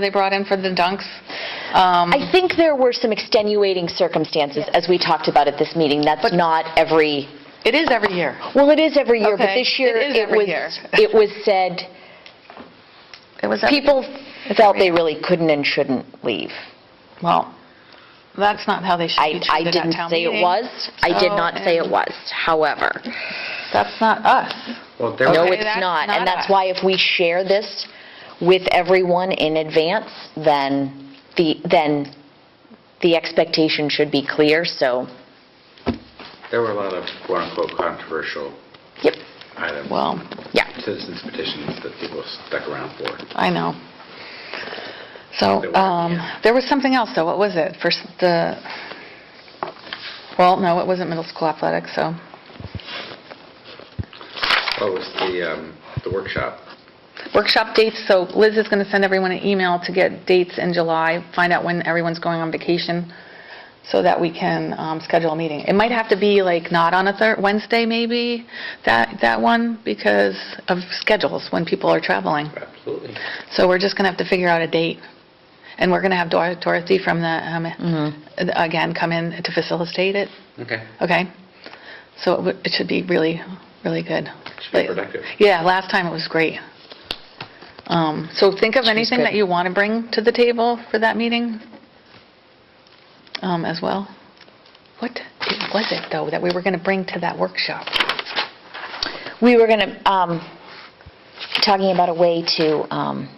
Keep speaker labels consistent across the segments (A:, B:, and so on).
A: they brought in for the dunks. Um,
B: I think there were some extenuating circumstances, as we talked about at this meeting. That's not every,
A: It is every year.
B: well, it is every year, but
A: Okay,
B: this year,
A: it is
B: it
A: every
B: was,
A: year.
B: it was said,
A: It was
B: people felt they really couldn't and shouldn't leave.
A: Well, that's not how they should
B: I,
A: be
B: I
A: treated at
B: didn't
A: town
B: say it
A: meeting.
B: was, I did
A: So,
B: not say it
A: and-
B: was, however.
A: That's not us.
C: Well, there
B: No,
C: were-
A: Okay,
B: it's
A: that's
B: not,
A: not
B: and that's
A: us.
B: why if we share this with everyone in advance, then the, then the expectation should be clear, so,
C: there were a lot of quote-unquote controversial
B: yep,
C: items,
A: Well,
B: yeah.
C: citizens petitions that people stuck around for.
A: I know. So,
C: There were,
A: um,
C: yeah.
A: there was something else, though. What was it? For s- the, well, no, it wasn't middle school athletics, so,
C: What was the, um, the workshop?
A: workshop dates, so Liz is going to send everyone an email to get dates in July, find out when everyone's going on vacation, so that we can um, schedule a meeting. It might have to be like not on a Thur, Wednesday, maybe, that, that one, because of schedules, when people are traveling.
C: Absolutely.
A: So we're just going to have to figure out a date. And we're going to have Dor- Dorothy from the, um, again, come in to facilitate it,
C: Okay.
A: okay? So it would- it should be really, really good.
C: Should be productive.
A: Yeah, last time it was great. Um, So think of anything
B: good.
A: that you want to bring to the table for that meeting um, as well. What was it, though, that we were going to bring to that workshop?
B: We were going to, um, talking about a way to, um,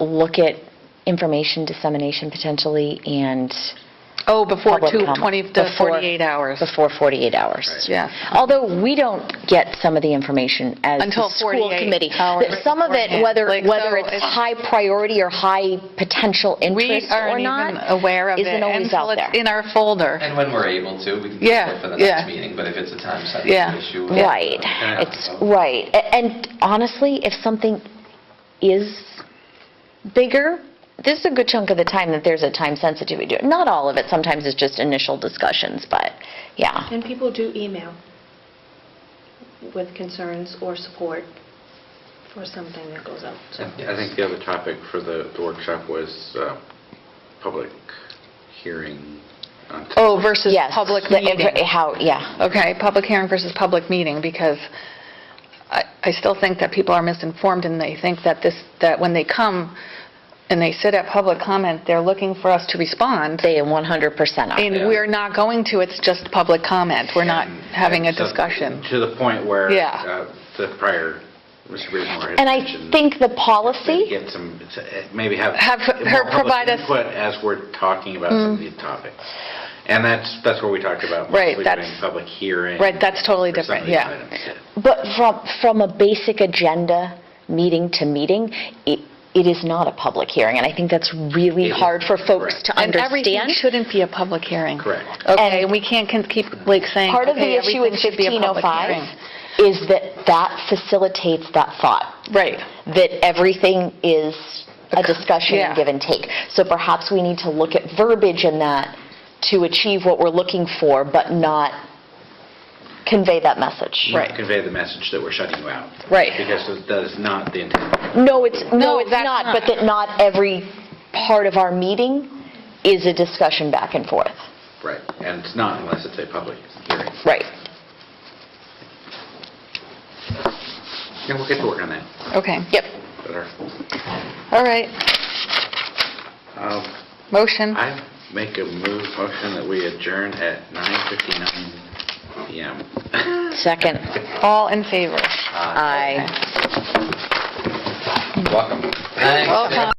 B: look at information dissemination potentially and
A: Oh, before
B: public
A: two-
B: comment.
A: 20 to
B: Before-
A: 48 hours.
B: Before 48 hours.
C: Right.
A: Yes.
B: Although we don't get some of the information as the
A: Until
B: school
A: 48
B: committee.
A: hours
B: That Some of it,
A: beforehand.
B: whether,
A: Like, so
B: whether it's
A: it's-
B: high priority or high potential
A: We
B: interest or
A: aren't
B: not.
A: even aware of it
B: Isn't always
A: until
B: out
A: it's
B: there.
A: in our folder.
D: And when we're able to, we can
A: Yeah,
D: do it for the
A: yeah.
D: next meeting, but if it's a time
A: Yeah,
D: sensitive issue. uh, we-
B: Right,
C: Yeah.
B: it's, right. A- And honestly, if something is bigger, this is a good chunk of the time that there's a time sensitivity to it. Not all of it, sometimes it's just initial discussions, but, yeah.
E: And people do email with concerns or support for something that goes out, so.
C: I think the other topic for the the workshop was uh, public hearing. on-
A: Oh, versus
B: Yes,
A: public
B: the
A: meeting.
B: infra- How, yeah.
A: Okay, public hearing versus public meeting, because I I still think that people are misinformed, and they think that this, that when they come and they sit at public comment, they're looking for us to respond,
B: They 100% are.
A: and
D: Yeah.
A: we're not going to, it's just public comment, we're not
C: And-
A: having a
C: and so-
A: discussion.
C: To the point where
A: Yeah.
C: uh, the prior, Mr. Breedmore had
B: And I
C: mentioned
B: think the policy,
C: Maybe get some, maybe have.
A: Have her
C: more public
A: provide us- Mm.
C: Input as we're talking about some of these topics. And that's, that's what we talked about.
A: Right,
C: possibly
A: that's-
C: doing Public hearing.
A: Right, that's totally
C: for some of
A: different,
C: these
A: yeah.
C: items,
B: but from, from a basic agenda, meeting to meeting, it, it is not a public hearing, and I think that's really
C: It is,
B: hard for folks
C: correct.
B: to
A: And
B: understand.
A: everything shouldn't be a public hearing.
C: Correct.
A: Okay, and we can't con- keep, like, saying,
B: Part of the
A: okay,
B: issue with
A: everything should be a public hearing.
B: 1505 is that that facilitates that thought,
A: Right,
B: that everything is a discussion
A: yeah.
B: and give and take. So perhaps we need to look at verbiage in that to achieve what we're looking for, but not convey that message.
C: Not Convey the message that we're shutting you out.
A: Right.
C: Because that is not the intent.
B: No, it's,
A: No,
B: no, it's
A: that's
B: not,
A: not.
B: but that not every part of our meeting is a discussion back and forth.
C: Right. And it's not unless it's a public hearing.
B: Right.
C: Yeah, we'll get to work on that.
A: okay.
B: Yep.
C: But our-
A: All right,
C: um,
A: motion.
C: I make a move, motion that we adjourn at 9:59 PM.
B: Second,
C: Uh,
A: All in favor?
B: aye.
D: Welcome. Thanks.
A: Welcome.